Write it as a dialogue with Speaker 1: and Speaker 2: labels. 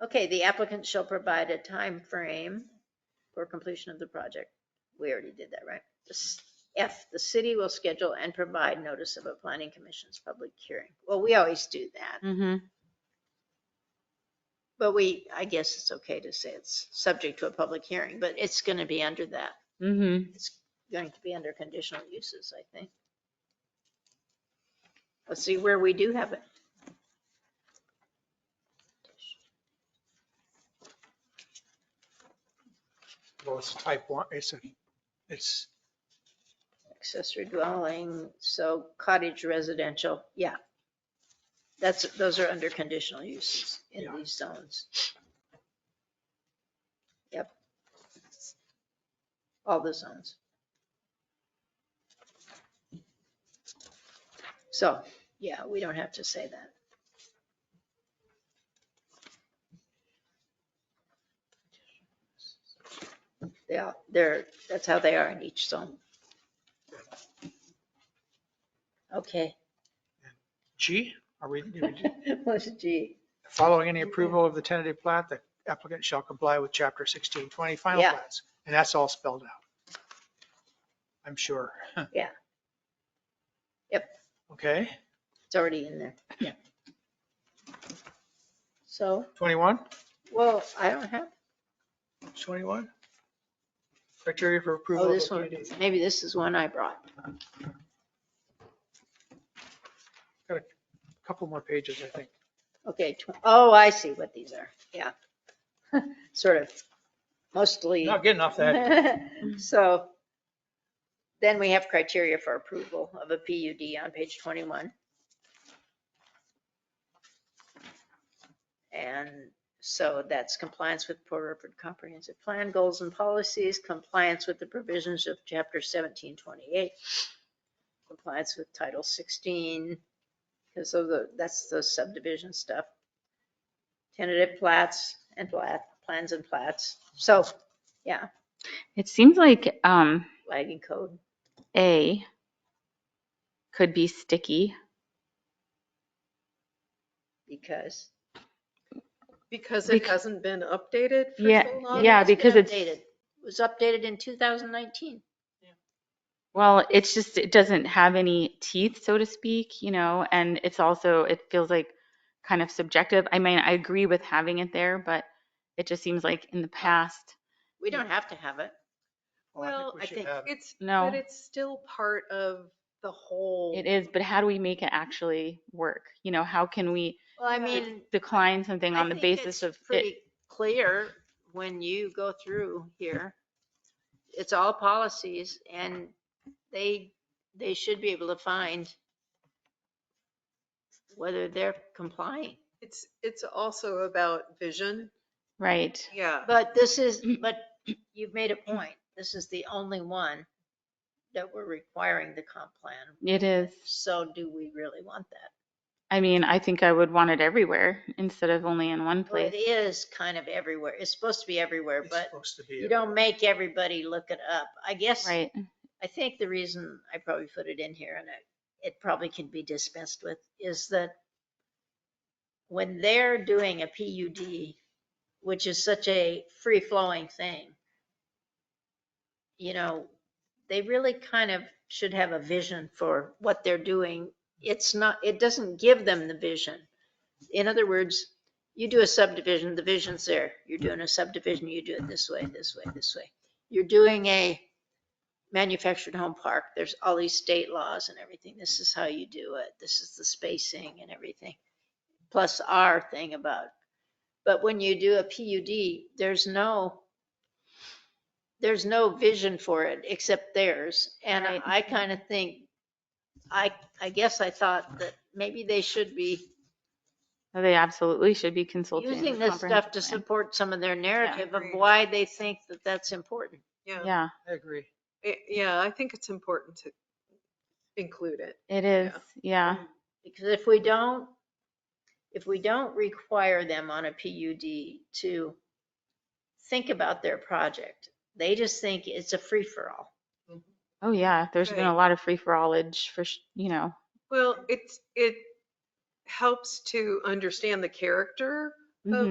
Speaker 1: Okay, the applicant shall provide a time frame for completion of the project. We already did that, right? This- F, the city will schedule and provide notice of a planning commission's public hearing. Well, we always do that,
Speaker 2: Mm-hmm.
Speaker 1: but we, I guess it's okay to say it's subject to a public hearing, but it's going to be under that.
Speaker 2: Mm-hmm.
Speaker 1: It's going to be under conditional uses, I think. Let's see where we do have it.
Speaker 3: Well, it's type one, it's a, it's,
Speaker 1: accessory dwelling, so cottage residential, yeah. That's, those are under conditional use in
Speaker 3: Yeah.
Speaker 1: these zones. Yep. All the zones. So, yeah, we don't have to say that. Yeah, they're, that's how they are in each zone. Okay.
Speaker 3: G, are we, did we do-
Speaker 1: What's G?
Speaker 3: following any approval of the tentative plat, the applicant shall comply with chapter sixteen twenty final
Speaker 1: Yeah.
Speaker 3: plats. And that's all spelled out. I'm sure.
Speaker 1: Yeah. Yep.
Speaker 3: Okay,
Speaker 1: It's already in there.
Speaker 3: Yeah.
Speaker 1: So,
Speaker 3: twenty-one,
Speaker 1: well, I don't have, oh,
Speaker 3: twenty-one? Criteria for approval.
Speaker 1: oh,
Speaker 3: of
Speaker 1: this
Speaker 3: a
Speaker 1: one,
Speaker 3: PUD.
Speaker 1: maybe this is one I brought.
Speaker 3: Couple more pages, I think.
Speaker 1: Okay, tw- oh, I see what these are. Yeah. Sort of mostly.
Speaker 3: Not getting off that. Mm.
Speaker 1: So then we have criteria for approval of a PUD on page 21. And so that's compliance with Port Orford Comprehensive Plan Goals and Policies, compliance with the provisions of Chapter 1728, compliance with Title 16, because of the, that's the subdivision stuff. Tentative plats and plat, plans and plats. So, yeah,
Speaker 2: It seems like um
Speaker 1: lagging code.
Speaker 2: A could be sticky.
Speaker 1: because.
Speaker 4: Because it
Speaker 2: Bec-
Speaker 4: hasn't been updated for
Speaker 2: Yeah,
Speaker 4: so long?
Speaker 2: yeah.
Speaker 1: it's been
Speaker 2: because it's-
Speaker 1: updated. It was updated in 2019.
Speaker 2: Well, it's just it doesn't have any teeth, so to speak, you know, and it's also it feels like kind of subjective. I mean, I agree with having it there, but it just seems like in the past,
Speaker 1: We don't have to have it.
Speaker 4: Well,
Speaker 3: we
Speaker 1: I
Speaker 3: should
Speaker 1: think
Speaker 3: have-
Speaker 4: It's,
Speaker 2: No.
Speaker 4: but it's still part of the whole.
Speaker 2: it is, but how do we make it actually work? You know, how can we
Speaker 1: Well, I mean.
Speaker 2: decline something
Speaker 1: I
Speaker 2: on the
Speaker 1: think it's
Speaker 2: basis of it?
Speaker 1: Pretty clear when you go through here. It's all policies and they, they should be able to find whether they're complying.
Speaker 4: It's, it's also about vision.
Speaker 2: Right.
Speaker 4: Yeah.
Speaker 1: But this is, but you've made a point. This is the only one that we're requiring the comp plan
Speaker 2: It is.
Speaker 1: So do we really want that?
Speaker 2: I mean, I think I would want it everywhere instead of only in one
Speaker 1: Well, it
Speaker 2: place.
Speaker 1: is kind of everywhere. It's supposed to be everywhere,
Speaker 3: It's
Speaker 1: but
Speaker 3: supposed to be
Speaker 1: you
Speaker 3: a-
Speaker 1: don't make everybody look it up. I guess,
Speaker 2: Right.
Speaker 1: I think the reason I probably put it in here and it, it probably can be dispensed with is that when they're doing a PUD, which is such a free-flowing thing, you know, they really kind of should have a vision for what they're doing. It's not, it doesn't give them the vision. In other words, you do a subdivision, the vision's there. You're doing a subdivision, you do it this way, this way, this way. You're doing a manufactured home park. There's all these state laws and everything. This is how you do it. This is the spacing and everything. Plus our thing about, but when you do a PUD, there's no, there's no vision for it except theirs. And
Speaker 2: Right.
Speaker 1: I kind of think, I, I guess I thought that maybe they should be
Speaker 2: They absolutely should be consulting.
Speaker 1: using
Speaker 2: the
Speaker 1: this stuff to
Speaker 2: comprehensive plan.
Speaker 1: support some of their narrative of
Speaker 4: Agreed.
Speaker 1: why they think that that's important.
Speaker 4: Yeah.
Speaker 2: Yeah,
Speaker 3: I agree.
Speaker 4: It- Yeah, I think it's important to include it.
Speaker 2: it is. Yeah.
Speaker 1: Mm. Because if we don't, if we don't require them on a PUD to think about their project, they just think it's a free-for-all.
Speaker 2: Oh, yeah. There's been a
Speaker 4: Right.
Speaker 2: lot of free for allage for, sh- you know,
Speaker 4: Well, it's, it helps to understand the character
Speaker 1: Oh,
Speaker 2: mhm.